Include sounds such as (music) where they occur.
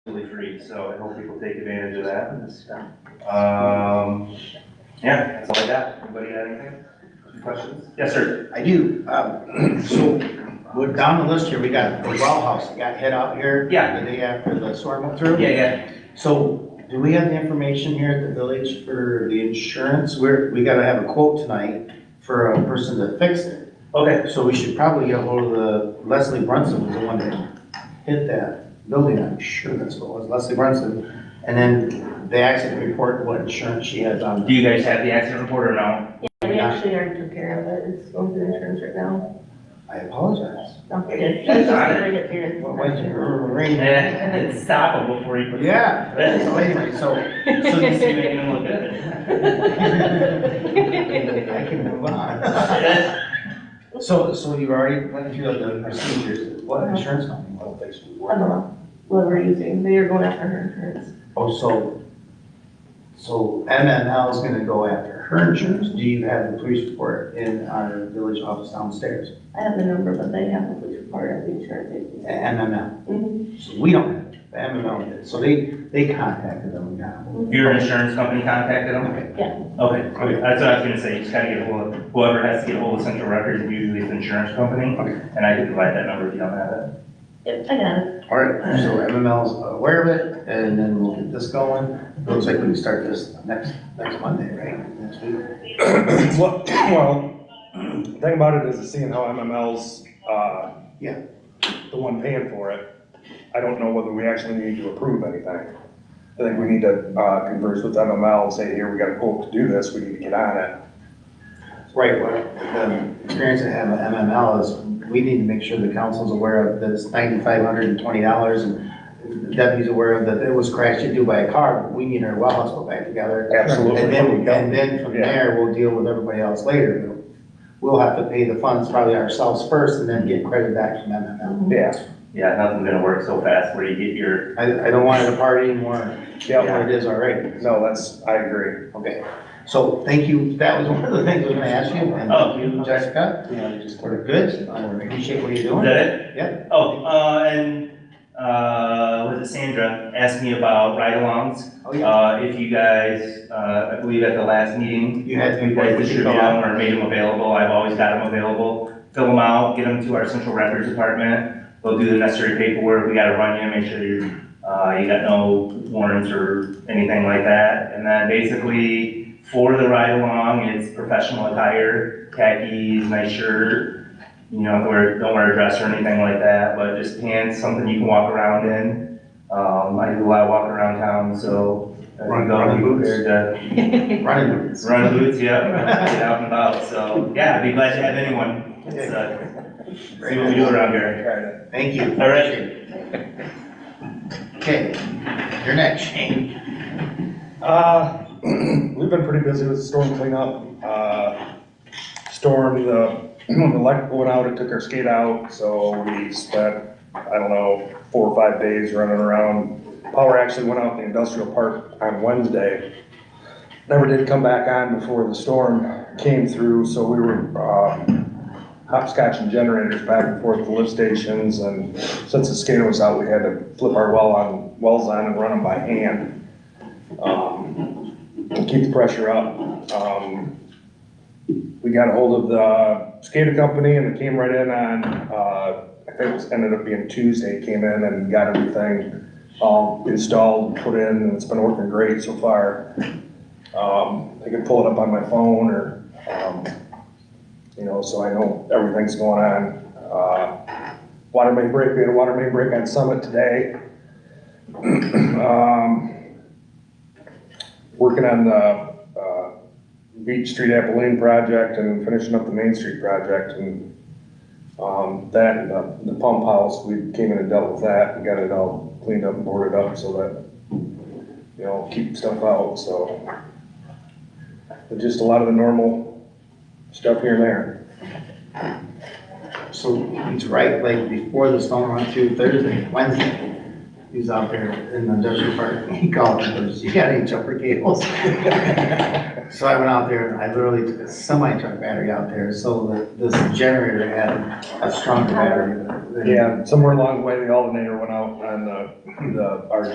really free, so I hope people take advantage of that. Um, yeah, that's all I got. Anybody got anything? Any questions? Yes, sir. I do, um, (clears throat) so, we're down the list here, we got the well house that got hit out here. Yeah. The day after the storm went through. yeah. So, do we have the information here at the village for the insurance? We're, we gotta have a quote tonight for a person to fix it. Okay, So we should probably get hold of the Leslie Brunson, was the one that hit that building, I'm sure that's what it was, Leslie Brunson. And then the accident report, what insurance she has on. do you guys have the accident report or no? (laughs) Yeah, we actually already took care of it, it's going through insurance right now. I apologize. Don't forget. That's all right. Bring it here. What was it? Ring. (laughs) Eh, Stop him before he. puts- Yeah, so anyway, (laughs) so, (laughs) so Just this, making him look good. I can move on. (laughs) So, so you already went through the procedures, what insurance company will fix you? (laughs) I don't know, what we're using, they are going after her insurance. Oh, so, so MML is gonna go after her insurance, do you have the police report in our village office downstairs? I have the number, but they have the police report of the insurance agency. MML, Mm-hmm. Mhm. so we don't have, it. the MML did, so they, they contacted them, yeah. Your insurance company contacted him? Okay. Okay, okay, that's what I was gonna say, you just gotta get hold of, whoever has to get hold of central records, usually it's the insurance company. Okay. And I can provide that number if you don't have it. Yep, I got it. All right, so MML's aware of it, and then we'll get this going. Looks like we can start this next, next Monday, right? Next week. (coughs) Well, well, the thing about it is seeing how MML's, uh. Yeah. The one paying for it, I don't know whether we actually need to approve anything. I think we need to, uh, converse with MML and say, here, we got a quote to do this, we need to get on it. Right, what the experience I have with MML is, we need to make sure the council's aware of this ninety-five hundred and twenty dollars, and the deputy's aware of that it was crashed into by a car, but we need our well house put back together. Absolutely. And then, and then from Yeah. there, we'll deal with everybody else later. We'll have to pay the funds probably ourselves first, and then get credit back from MML. Yeah, Yeah, nothing's gonna work so fast where you get your, I, I don't want it to party anymore, yeah, what it is already. no, that's, I agree. Okay, so thank you, that was one of the things I was gonna ask you, and Oh, thank you, okay. Jessica. Yeah. We're good, I appreciate what you're is doing. that it? Yeah. Oh, uh, and, uh, was it Sandra asked me about ride-alongs? Oh, yeah. Uh, if you guys, uh, I believe at the last meeting, You had to you be guys quite, we should distributed go them out. or made them available, I've always got them available. Fill them out, get them to our central records department, they'll do the necessary paperwork, we gotta run you, make sure you're Uh, you got no warrants or anything like that. And then basically, for the ride along, it's professional attire, khakis, nice shirt. You know, don't wear, don't wear a dress or anything like that, but just pants, something you can walk around in. Um, I do a lot of walking around town, so. I Run- go running boots? prepared um, (laughs) Running boots. to Run boots, yeah, (laughs) get out and about, so, yeah, I'd be glad to have anyone. It's, uh, See what we do around here. Alright, Thank you. All right. Okay, you're next, Shane. Uh, (clears throat) we've been pretty busy with the storm cleanup, uh, storm, the, (clears throat) when the light went out, it took our skate out, so we spent, I don't know, four or five days running around. Power actually went out in the industrial park on Wednesday. Never did come back on before the storm came through, so we were, uh, hopscotching generators back and forth to lift stations, and since the skater was out, we had to flip our well on, wells on and run them by hand um, to keep the pressure up. Um, We got a hold of the skater company and they came right in on, uh, I think it was, ended up being Tuesday, came in and got everything all installed, put in, and it's been working great so far. Um, I could pull it up on my phone or, um, you know, so I know everything's going on. Uh, Water main break, we had a water main break on Summit today. (clears throat) Um, working on the, uh, Beach Street Apple Lane project and finishing up the Main Street project and, um, that and the, the pump house, we came in and dealt with that and got it all cleaned up and boarded up so that, you know, keep stuff out, so. But just a lot of the normal stuff here and there. So he's right, like before the storm went through Thursday, Wednesday, he was out there in the industrial park, he called and goes, you got any jumper cables? So I went out there and I literally took a semi truck battery out there, so the- this generator had a stronger battery than. Yeah, somewhere along the way, the alternator went out on the, the, our